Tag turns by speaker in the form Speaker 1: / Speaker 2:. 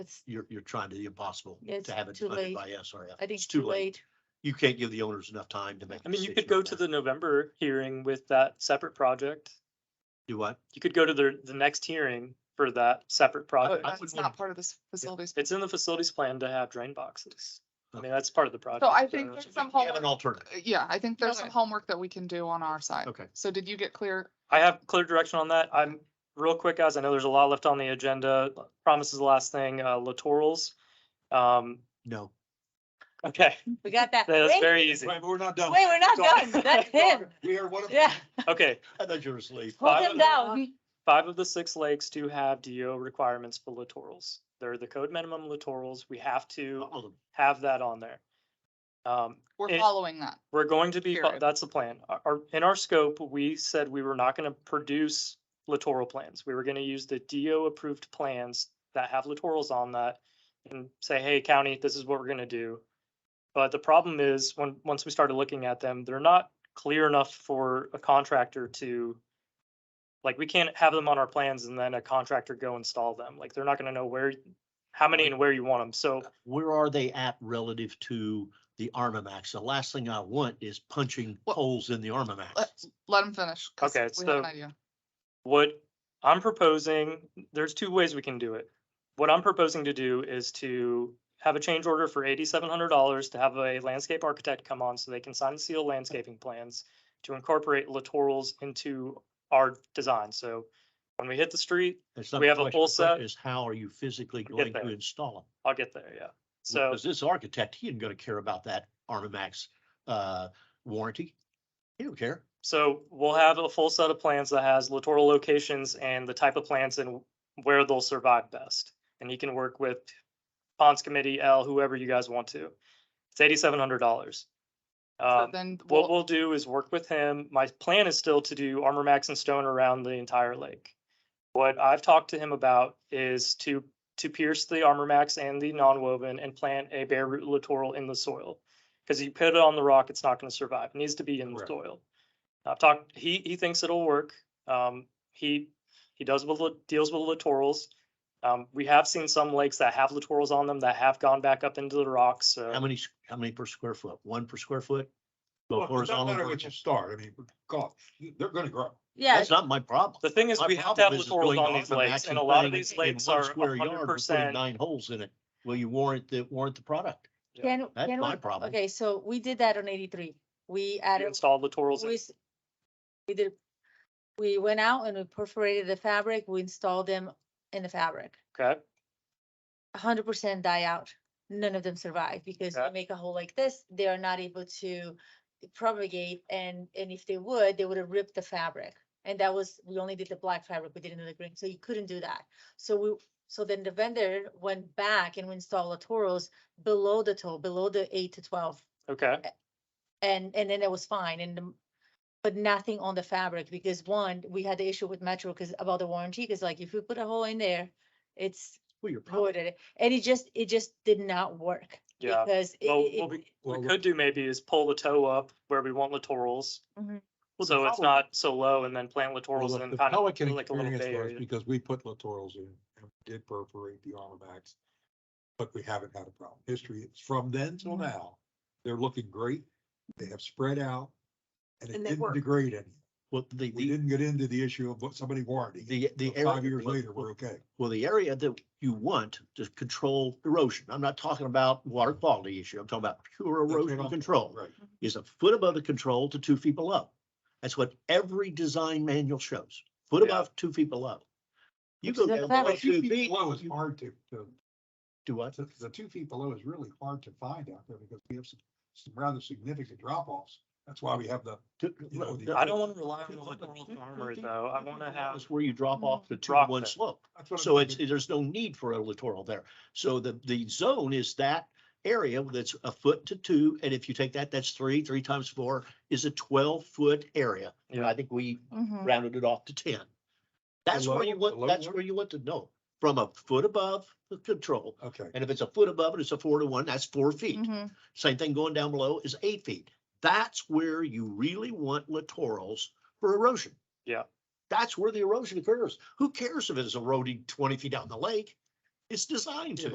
Speaker 1: It's,
Speaker 2: you're, you're trying to the impossible
Speaker 1: It's
Speaker 2: to have it
Speaker 1: too
Speaker 2: funded
Speaker 1: late.
Speaker 2: by SRF.
Speaker 1: I think it's too late.
Speaker 2: You can't give the owners enough time to make. a
Speaker 3: I mean, you could
Speaker 2: decision
Speaker 3: go
Speaker 2: on
Speaker 3: to
Speaker 2: that.
Speaker 3: the November hearing with that separate project.
Speaker 2: Do what?
Speaker 3: You could go to the, the next hearing for that separate
Speaker 4: Oh,
Speaker 3: project.
Speaker 2: I
Speaker 4: That's
Speaker 2: would
Speaker 4: not
Speaker 2: want-
Speaker 4: part of this facilities.
Speaker 3: It's in the facilities plan to have drain boxes. I
Speaker 2: Okay.
Speaker 3: mean, that's part of the project.
Speaker 4: So I think there's some
Speaker 2: Have an
Speaker 4: homework,
Speaker 2: alternative.
Speaker 4: yeah, I think there's some
Speaker 1: Okay.
Speaker 4: homework that we can do on our side.
Speaker 2: Okay.
Speaker 4: So did you get clear?
Speaker 3: I have clear direction on that. I'm, real quick, guys, I know there's a lot left on the agenda. Promise is the last thing, uh, littorals. Um,
Speaker 2: No.
Speaker 3: okay,
Speaker 1: We got that.
Speaker 3: that's
Speaker 1: Wait,
Speaker 3: very easy.
Speaker 2: we're not done.
Speaker 1: wait, we're not done. That's him.
Speaker 2: We are one of.
Speaker 1: Yeah,
Speaker 3: Okay,
Speaker 2: I thought you were asleep.
Speaker 1: hold him down.
Speaker 3: five of the six lakes do have DO requirements for littorals. They're the code minimum littorals. We have to
Speaker 2: All of them.
Speaker 3: have that on there. Um,
Speaker 4: We're
Speaker 3: It-
Speaker 4: following that.
Speaker 3: We're going to be, fo-
Speaker 4: Period.
Speaker 3: that's the plan. Our- Our, in our scope, we said we were not gonna produce littoral plans. We were gonna use the DO approved plans that have littorals on that and say, hey, county, this is what we're gonna do. But the problem is, when, once we started looking at them, they're not clear enough for a contractor to, like, we can't have them on our plans and then a contractor go install them. Like, they're not gonna know where, how many and where you want them. So
Speaker 2: Where are they at relative to the Armamax? The last thing I want is punching
Speaker 4: Well-
Speaker 2: holes in the Armamax.
Speaker 4: Let- Let him finish. 'cause
Speaker 3: Okay,
Speaker 4: We have an
Speaker 3: so-
Speaker 4: idea.
Speaker 3: What I'm proposing, there's two ways we can do it. What I'm proposing to do is to have a change order for eighty-seven hundred dollars to have a landscape architect come on so they can sign seal landscaping plans to incorporate littorals into our design. So when we hit the street,
Speaker 2: That's not
Speaker 3: we
Speaker 2: the
Speaker 3: have a
Speaker 2: question.
Speaker 3: full
Speaker 2: The question
Speaker 3: set.
Speaker 2: Is how are you physically
Speaker 3: We'll
Speaker 2: going
Speaker 3: get
Speaker 2: to
Speaker 3: there.
Speaker 2: install them?
Speaker 3: I'll get there, yeah. So
Speaker 2: Because this architect, he isn't gonna care about that Armamax, uh, warranty. He don't care.
Speaker 3: So we'll have a full set of plans that has littoral locations and the type of plants and where they'll survive best. And you can work with ponds committee, L, whoever you guys want to. It's eighty-seven hundred dollars.
Speaker 4: So
Speaker 3: Um,
Speaker 4: then
Speaker 3: what
Speaker 4: we'll,
Speaker 3: we'll do is work with him. My plan is still to do armor max and stone around the entire lake. What I've talked to him about is to, to pierce the armor max and the non-woven and plant a bare root littoral in the soil. Cause you put it on the rock, it's not gonna survive. It needs to be in the
Speaker 2: Correct.
Speaker 3: soil. I've talked, he, he thinks it'll work. Um, he, he does with, lit- deals with littorals. Um, we have seen some lakes that have littorals on them that have gone back up into the rocks, so.
Speaker 2: How many, s- how many per square foot? One per square foot? Both
Speaker 5: Well, it
Speaker 2: horizontal
Speaker 5: doesn't
Speaker 2: and
Speaker 5: matter what you
Speaker 2: vertical?
Speaker 5: start, I mean, God, they're gonna grow.
Speaker 1: Yeah,
Speaker 2: That's not my problem.
Speaker 3: The thing is,
Speaker 2: My
Speaker 3: we have to have
Speaker 2: problem is it's
Speaker 3: littorals
Speaker 2: going
Speaker 3: on these
Speaker 2: Armamax
Speaker 3: lakes, and a
Speaker 2: and
Speaker 3: lot
Speaker 2: putting
Speaker 3: of
Speaker 2: it
Speaker 3: these
Speaker 2: in
Speaker 3: lakes
Speaker 2: one
Speaker 3: are
Speaker 2: square yard and
Speaker 3: hundred
Speaker 2: putting
Speaker 3: percent.
Speaker 2: Nine holes in it. Will you warrant the, warrant the product?
Speaker 1: can,
Speaker 2: That's
Speaker 1: can
Speaker 2: my
Speaker 1: we,
Speaker 2: problem.
Speaker 1: okay, so we did that on eighty-three. We added,
Speaker 3: Installed littorals.
Speaker 1: we,
Speaker 3: in.
Speaker 1: s- we did, we went out and we perforated the fabric, we installed them in the fabric.
Speaker 3: Okay,
Speaker 1: hundred percent die out. None of them survive because you
Speaker 3: Okay.
Speaker 1: make a hole like this, they are not able to propagate and, and if they would, they would have ripped the fabric. And that was, we only did the black fabric, we didn't do the green, so you couldn't do that. So we, so then the vendor went back and we installed littorals below the toe, below the eight to twelve.
Speaker 3: okay.
Speaker 1: And, and then it was fine and, the- but nothing on the fabric because one, we had the issue with Metro because about the warranty, because like if you put a hole in there, it's
Speaker 2: Well, your problem.
Speaker 1: voted it, and it just, it just did not work.
Speaker 3: Yeah.
Speaker 1: Because. it-
Speaker 3: Well,
Speaker 1: it-
Speaker 3: what we,
Speaker 5: Well,
Speaker 3: we
Speaker 5: look-
Speaker 3: could do maybe is pull the toe up where we want littorals.
Speaker 1: Mhm.
Speaker 2: Well, the
Speaker 3: So it's
Speaker 2: problem-
Speaker 3: not so low and then plant
Speaker 5: Well,
Speaker 3: littorals
Speaker 5: look,
Speaker 3: and
Speaker 5: The
Speaker 3: kind of like a
Speaker 5: Pelican
Speaker 3: little bay
Speaker 5: experience was
Speaker 3: area.
Speaker 5: because we put littorals in and we did perforate the armamax. But we haven't had a problem. History, it's from then till
Speaker 1: Mhm.
Speaker 2: Mm-hmm.
Speaker 5: now, they're looking great. They have spread out. And it
Speaker 6: And they
Speaker 5: didn't
Speaker 6: work.
Speaker 5: degrade any.
Speaker 2: Well, the,
Speaker 5: We
Speaker 2: the,
Speaker 5: didn't get into the issue of what somebody warranty.
Speaker 2: the, the. area-
Speaker 5: Five years
Speaker 2: well,
Speaker 5: later,
Speaker 2: well,
Speaker 5: we're okay.
Speaker 2: Well, the area that you want to control erosion, I'm not talking about water quality issue, I'm talking about pure
Speaker 5: That's what
Speaker 2: erosion
Speaker 5: I'm-
Speaker 2: control,
Speaker 5: Right.
Speaker 2: is a foot above the control to two feet below. That's what every design manual shows, foot
Speaker 3: Yeah.
Speaker 2: above, two feet below. You
Speaker 1: Which
Speaker 2: go
Speaker 1: is a fact.
Speaker 2: down below
Speaker 5: Well,
Speaker 2: two
Speaker 5: Two
Speaker 2: feet,
Speaker 5: feet below is
Speaker 2: you-
Speaker 5: hard to, to
Speaker 2: do what?
Speaker 5: So the two feet below is really hard to find out there because we have some, some rather significant drop offs. That's why we have the,
Speaker 2: Two-
Speaker 5: You know, the-
Speaker 2: no,
Speaker 3: I don't want to rely on
Speaker 2: two-
Speaker 3: the
Speaker 2: two- two-
Speaker 3: littoral
Speaker 2: two
Speaker 3: armor
Speaker 2: feet
Speaker 3: though. I
Speaker 2: below
Speaker 3: want to have,
Speaker 2: is Where you drop off the two to
Speaker 3: Rock
Speaker 2: one
Speaker 3: there.
Speaker 2: slope.
Speaker 5: that's what. I'm
Speaker 2: So it's,
Speaker 5: thinking.
Speaker 2: there's no need for a littoral there. So the, the zone is that area that's a foot to two, and if you take that, that's three, three times four is a twelve foot area. And I
Speaker 3: Yeah.
Speaker 2: think we
Speaker 1: Mhm.
Speaker 2: rounded it off to ten. That's where you
Speaker 5: low- the
Speaker 2: want,
Speaker 5: low
Speaker 2: that's
Speaker 5: one?
Speaker 2: where you want to know, from a foot above the control.
Speaker 5: Okay,
Speaker 2: And if it's a foot above it, it's a four to one, that's four feet.
Speaker 1: Mhm.
Speaker 2: Same thing going down below is eight feet. That's where you really want littorals for erosion.
Speaker 3: Yeah.
Speaker 2: That's where the erosion occurs. Who cares if it's eroding twenty feet down the lake? It's designed to.